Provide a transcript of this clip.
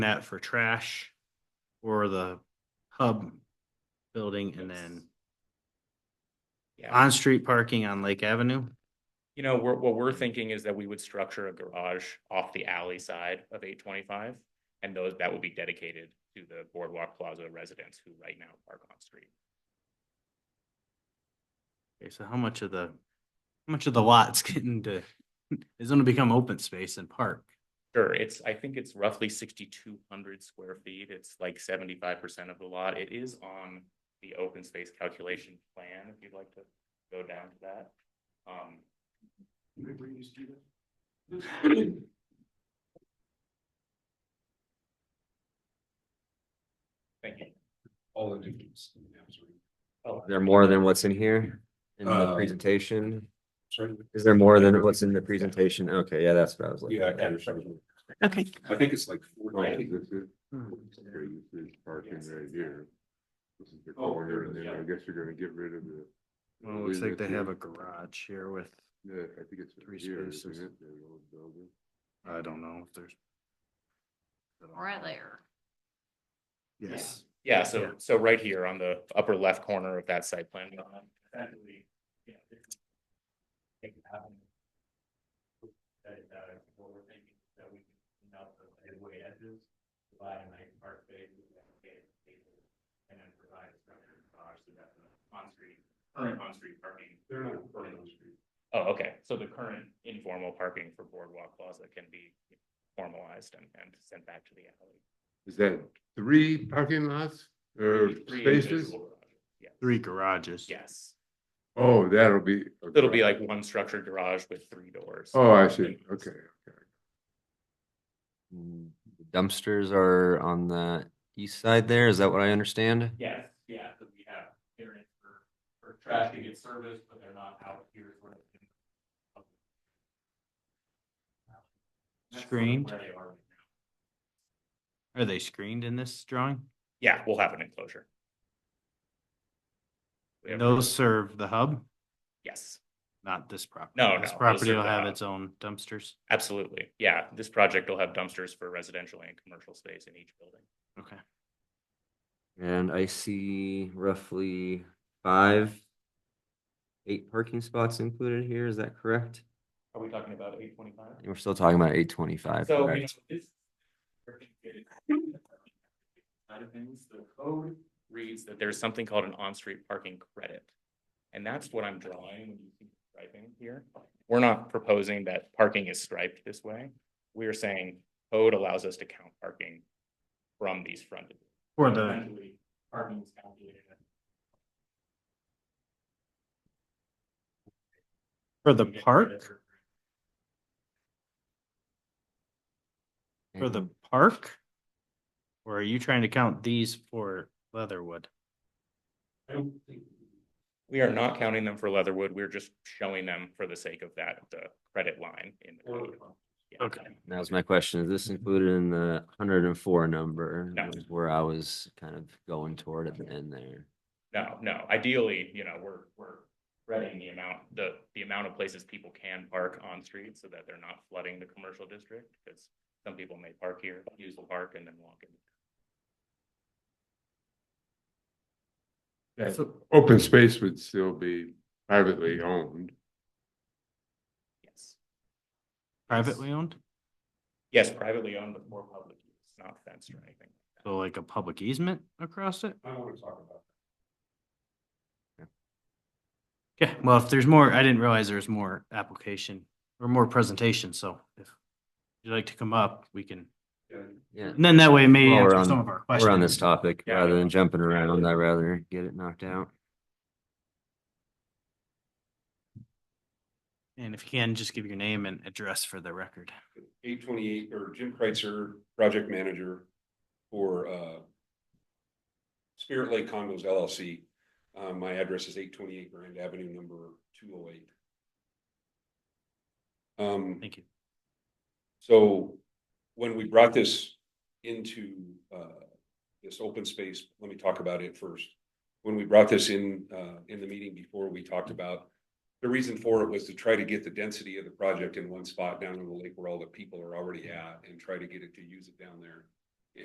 that for trash or the hub building and then Yeah, on-street parking on Lake Avenue? you know, we're, what we're thinking is that we would structure a garage off the alley side of eight twenty-five. And those, that would be dedicated to the Boardwalk Plaza residents who right now park on street. Okay, so how much of the, how much of the lot's getting to, is gonna become open space and park? Sure, it's, I think it's roughly sixty-two hundred square feet. It's like seventy-five percent of the lot. It is on the open space calculation plan, if you'd like to go down to that. Um, thank you. All the duties. Oh, There more than what's in here in the Uh, presentation? Sorry. Is there more than what's in the presentation? Okay, yeah, that's what I was looking Yeah. I at. can't remember. I think it's like. four- Right, Oh, this is, Hmm. where you see parking Yes. right here. This is the Oh, corner, and then yeah. I guess you're gonna get rid of the. Well, it looks like they have a Yeah, garage here with, I think it's Three here, isn't spaces. it? The old building. I don't know if there's. Right there. Yes, Yeah, so, Yeah. so right here on the upper left corner of that site plan. document, effectively, yeah, there's- it can happen. That, uh, what we're thinking, that we can melt the headway edges, provide a nice park base, with that gate, gate, and then provide a structure garage so that the on-street, current on-street parking. They're not part of the street. Oh, okay, so the current informal parking for Boardwalk Plaza can be formalized and, and sent back to the alley. Is that three parking lots or Three spaces? individual garages, Yeah, three garages. yes. Oh, that'll be. a It'll be garage. like one structured garage with three doors. Oh, I see, okay, okay. Mm, Dumpsters are on the east side there, is that what I understand? Yes, yeah, so we have areas for, for trash to get serviced, but they're not out here where. they can- That's sort of Screened? where they are right now. Are they screened in this drawing? Yeah, we'll have an enclosure. We have- Those serve the hub, Yes, not this property. No, This no, those property serve will the have hub. its own dumpsters. absolutely. Yeah, this project will have dumpsters for residential and commercial space in each building. Okay. And I see roughly five, eight parking spots included here, is that correct? Are we talking about eight twenty-five? We're still talking about eight twenty-five, So, you know, correct? this. Side of things, the code reads that there's something called an on-street parking credit. And that's what I'm drawing when you see striping here. We're not proposing that parking is striped this way. We're saying code allows us to count parking from these frontages. For the, Essentially, Parking is calculated. as- for the you get park, credit for- for the And- park? Or are you trying to count these for Leatherwood? I don't think. We are not counting them for Leatherwood. We're just showing them for the sake of that, the credit line in the Or- code. Yeah. Okay. That was my question, is this included in the hundred and four number? No. Is Where I was kind of going toward at the end there. No, no, ideally, you know, we're, we're spreading the amount, the, the amount of places people can park on street so that they're not flooding the commercial district, because some people may park here, use the park and then walk in. Yeah, Open space would still be Mm-hmm. privately owned. Yes, Privately owned? yes, privately owned, but more public use, not fenced or anything. So like a public easement across it? I don't wanna talk about. Yeah, well, if there's more, I didn't realize there was more application or more presentation, so if you'd like to come up, we can, that. Yeah. Yeah. and then that way maybe Well, we're answer on- some of our questions. We're on this topic Yeah. rather than jumping around. I'd rather get it knocked out. And if you can, just give your name and address for the record. eight twenty-eight, or Jim Kreitzer, project manager for uh, Spirit Lake Condos LLC. Uh, My address is eight twenty-eight Grand Avenue, number two oh eight. Um, Thank you. so when we brought this into uh, this open space, let me talk about it first. When we brought this in, uh, in the meeting before, we talked about the reason for it was to try to get the density of the project in one spot down on the lake where all the people are already at and try to get it to use it down there.